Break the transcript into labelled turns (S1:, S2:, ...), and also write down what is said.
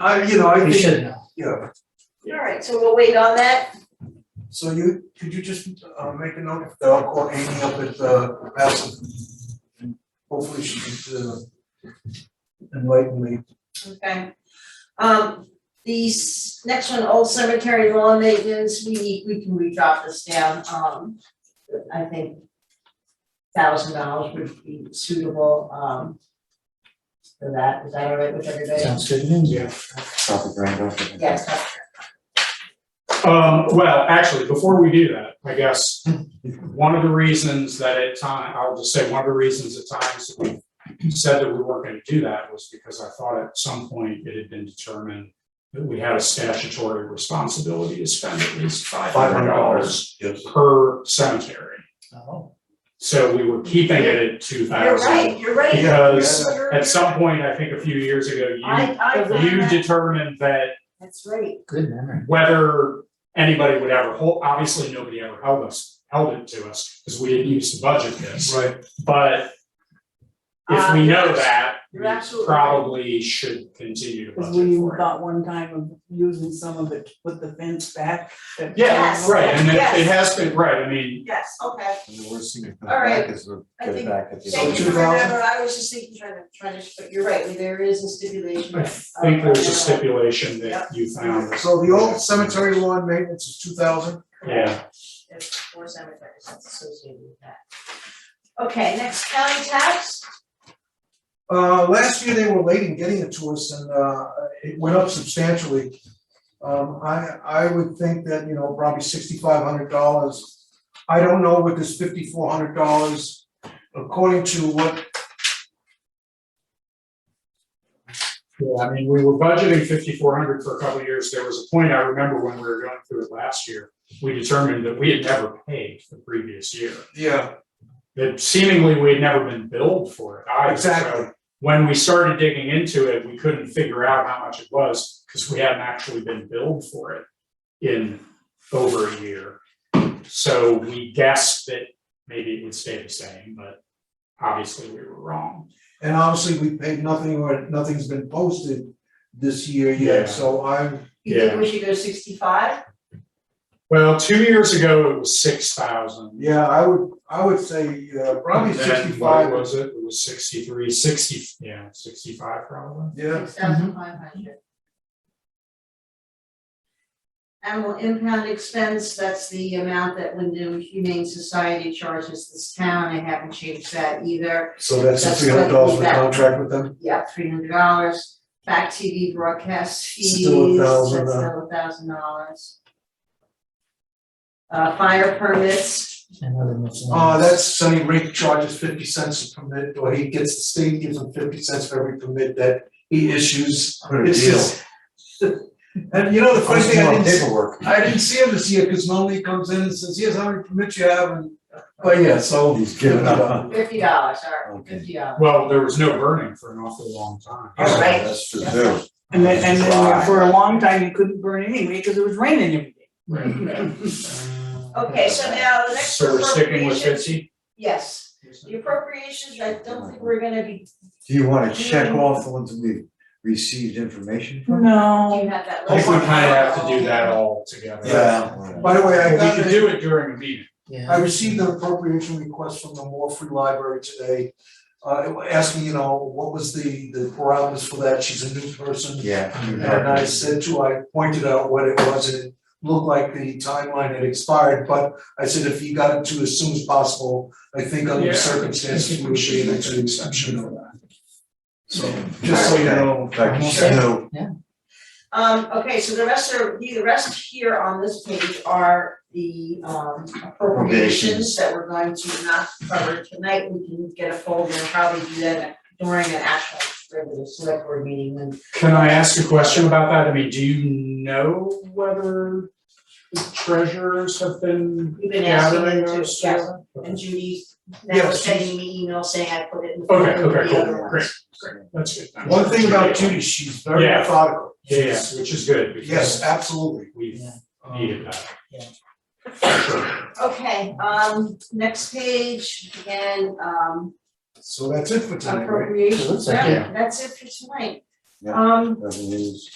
S1: I, you know, I
S2: We
S1: think,
S2: should know.
S1: yeah,
S3: All right, so we'll wait on that.
S1: so you, could you just, uh, make a note, that I'll call Amy up at, uh, Bassett. and Hopefully she can, uh, enlighten me.
S3: Okay. Um, these, next one, old cemetery lawn maintenance, we need, we can re-drop this down, um, I think thousand dollars would be suitable, um, for that, is that all right with everybody?
S2: Sounds good to me.
S4: Yeah.
S5: South of Grand Ocean.
S3: Yes, that's
S4: Um, well, actually, before we do that, I guess, one of the reasons that at time, I'll just say, one of the reasons at times that we said that we weren't gonna do that was because I thought at some point it had been determined that we had a statutory responsibility to spend at least five hundred dollars
S1: Yes.
S4: per cemetery.
S2: Oh,
S4: So we were keeping it at two
S3: You're
S4: thousand.
S3: right, you're right.
S4: Because
S3: You're-
S4: At some point, I think a few years ago, you,
S3: I, I found
S4: you
S3: that-
S4: determined that
S3: that's right,
S2: good memory.
S4: whether anybody would ever hold, obviously, nobody ever held us, held it to us, because we didn't use the budget this,
S1: Right,
S4: but if
S3: Uh,
S4: we
S3: you're
S4: know
S3: abs-
S4: that,
S3: you're
S4: we
S3: absolutely right.
S4: probably should continue to
S6: Cause
S4: budget
S6: we
S4: for it.
S6: thought one time of using some of it to put the fence back. that-
S4: Yeah,
S3: Yes.
S4: right, and it, it
S3: Yes.
S4: has been, right, I mean,
S3: yes, okay,
S5: The worst thing that comes
S3: All right.
S5: back is we'll
S3: I
S5: get it
S3: think-
S5: back at the.
S1: So
S3: thank you for
S1: 2,000?
S3: remember, I was just thinking, trying to, trying to, but you're right, there is a stipulation. uh,
S4: I think there's a stipulation that you found,
S1: so the old cemetery lawn maintenance is two thousand,
S4: yeah,
S3: It's four cemeteries that's associated with that. Okay, next county tax,
S1: Uh, last year they were late in getting it to us and, uh, it went up substantially. Um, I, I would think that, you know, probably sixty-five hundred dollars. I don't know what this fifty-four hundred dollars, according to what,
S4: yeah, I mean, we were budgeting fifty-four hundred for a couple of years, there was a point, I remember when we were going through it last year, we determined that we had never paid the previous year.
S1: yeah,
S4: that seemingly we had never been billed for it either. So
S1: Exactly.
S4: When we started digging into it, we couldn't figure out how much it was because we hadn't actually been billed for it in over a year. So we guessed that maybe it would stay the same, but obviously we were wrong.
S1: and obviously we paid nothing or nothing's been posted this year
S4: Yeah.
S1: yet, so I'm,
S3: you think
S4: Yeah.
S3: we should go sixty-five?
S4: Well, two years ago, it was six thousand.
S1: yeah, I would, I would say, uh, probably
S4: What
S1: sixty-five,
S4: was it? It was sixty-three, sixty, yeah, sixty-five probably.
S1: yeah.
S3: Six thousand five hundred. Animal impound expense, that's the amount that Wyndham Humane Society charges this town, I haven't changed that either,
S1: So that's
S3: That's
S1: three hundred dollars for
S3: what-
S1: contract with them?
S3: yeah, three hundred dollars. Back TV broadcast fees,
S1: Still a
S3: that's
S1: thousand, uh,
S3: still a thousand dollars. Uh, fire permits,
S2: Another miscellaneous.
S1: Uh, that's Sonny Rink charges fifty cents a permit, or he gets, the state gives him fifty cents for every permit that he issues.
S5: What a
S1: It's
S5: deal.
S1: just- And you know, the funny
S5: First
S1: thing, I didn't, s-
S5: paperwork.
S1: I didn't see him this year, cause normally he comes in and says, here's how many permits you have, and, but yeah, so.
S5: He's giving up.
S3: fifty dollars, all right,
S5: Okay.
S3: fifty dollars.
S4: Well, there was no burning for an awfully long time.
S3: All right.
S5: That's true too.
S6: And then, and then for a long time, you couldn't burn it anyway, cause it was raining every day.
S3: Okay, so now the next
S4: So we're sticking with
S3: appropriations,
S4: fifty?
S3: yes, the appropriations, I don't think we're gonna be,
S5: Do you wanna check off the ones that we've received information from?
S3: do you
S6: No,
S3: have that
S4: I
S3: list?
S4: think we kind of have to do that all together.
S5: Yeah.
S3: Oh,
S1: By the way, I
S4: But
S1: got,
S4: we could
S1: a-
S4: do it during a meeting.
S1: I
S2: Yeah.
S1: received an appropriation request from the Moore Free Library today. Uh, asking, you know, what was the, the parameters for that, she's a new person.
S5: Yeah. you
S1: And I
S5: know.
S1: said to, I pointed out what it was, and it looked like the timeline had expired, but I said if he got it to as soon as possible, I think under the
S4: Yeah.
S1: circumstances, we would be able to exception for that. So, just
S5: Just
S1: so
S5: like
S1: you know.
S5: Like you said, no,
S3: Um, okay, so the rest are, the rest here on this page are the um appropriations
S5: Appropriations.
S3: that we're going to not cover tonight, we can get a folder and probably do that during an actual regular select board meeting when
S4: Can I ask a question about that? I mean, do you know whether the treasurers have been
S3: we've been asking them
S4: gathering
S3: to,
S4: those?
S3: yes,
S4: together?
S3: and
S4: Okay,
S3: Judy
S1: Yeah,
S3: now
S1: she's-
S3: sending me email saying I put it in. front
S4: Okay,
S3: of the
S4: okay,
S3: other
S4: cool,
S3: ones.
S4: great, great, that's good. I'm
S1: One thing about
S4: sure.
S1: Judy, she's very
S4: Yeah.
S1: methodical.
S4: Yeah, yeah, which is good,
S1: Yes, uh,
S4: because
S1: absolutely.
S4: we've
S2: Yeah.
S1: Um,
S4: needed that.
S2: Yeah.
S3: Okay, um, next page, again, um,
S1: So that's it for tonight, right?
S3: appropriations,
S2: like-
S3: yeah, that's it for tonight.
S5: Yeah.
S3: Um,
S5: revenues.